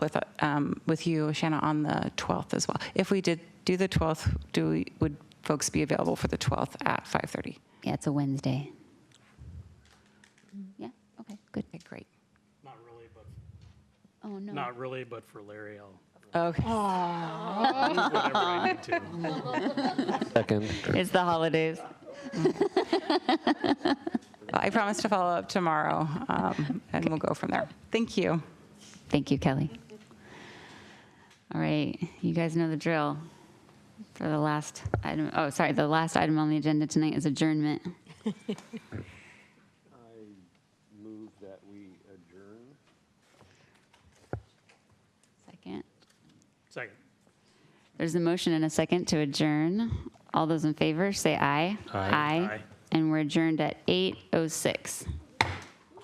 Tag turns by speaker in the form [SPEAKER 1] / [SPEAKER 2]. [SPEAKER 1] with, um, with you, Shanna, on the 12th as well. If we did do the 12th, do, we would folks be available for the 12th at 5:30?
[SPEAKER 2] Yeah, it's a Wednesday. Yeah, okay, good.
[SPEAKER 1] Okay, great.
[SPEAKER 3] Not really, but,
[SPEAKER 2] Oh, no.
[SPEAKER 3] not really, but for Larry, I'll,
[SPEAKER 1] Okay.
[SPEAKER 3] whatever I need to.
[SPEAKER 4] Second.
[SPEAKER 5] It's the holidays.
[SPEAKER 1] I promise to follow up tomorrow, um, and we'll go from there. Thank you.
[SPEAKER 2] Thank you, Kelly. All right, you guys know the drill. For the last item, oh, sorry, the last item on the agenda tonight is adjournment.
[SPEAKER 4] Move that we adjourn.
[SPEAKER 2] Second.
[SPEAKER 3] Second.
[SPEAKER 2] There's a motion and a second to adjourn. All those in favor, say aye.
[SPEAKER 3] Aye.
[SPEAKER 2] oh And we're adjourned at 8:06.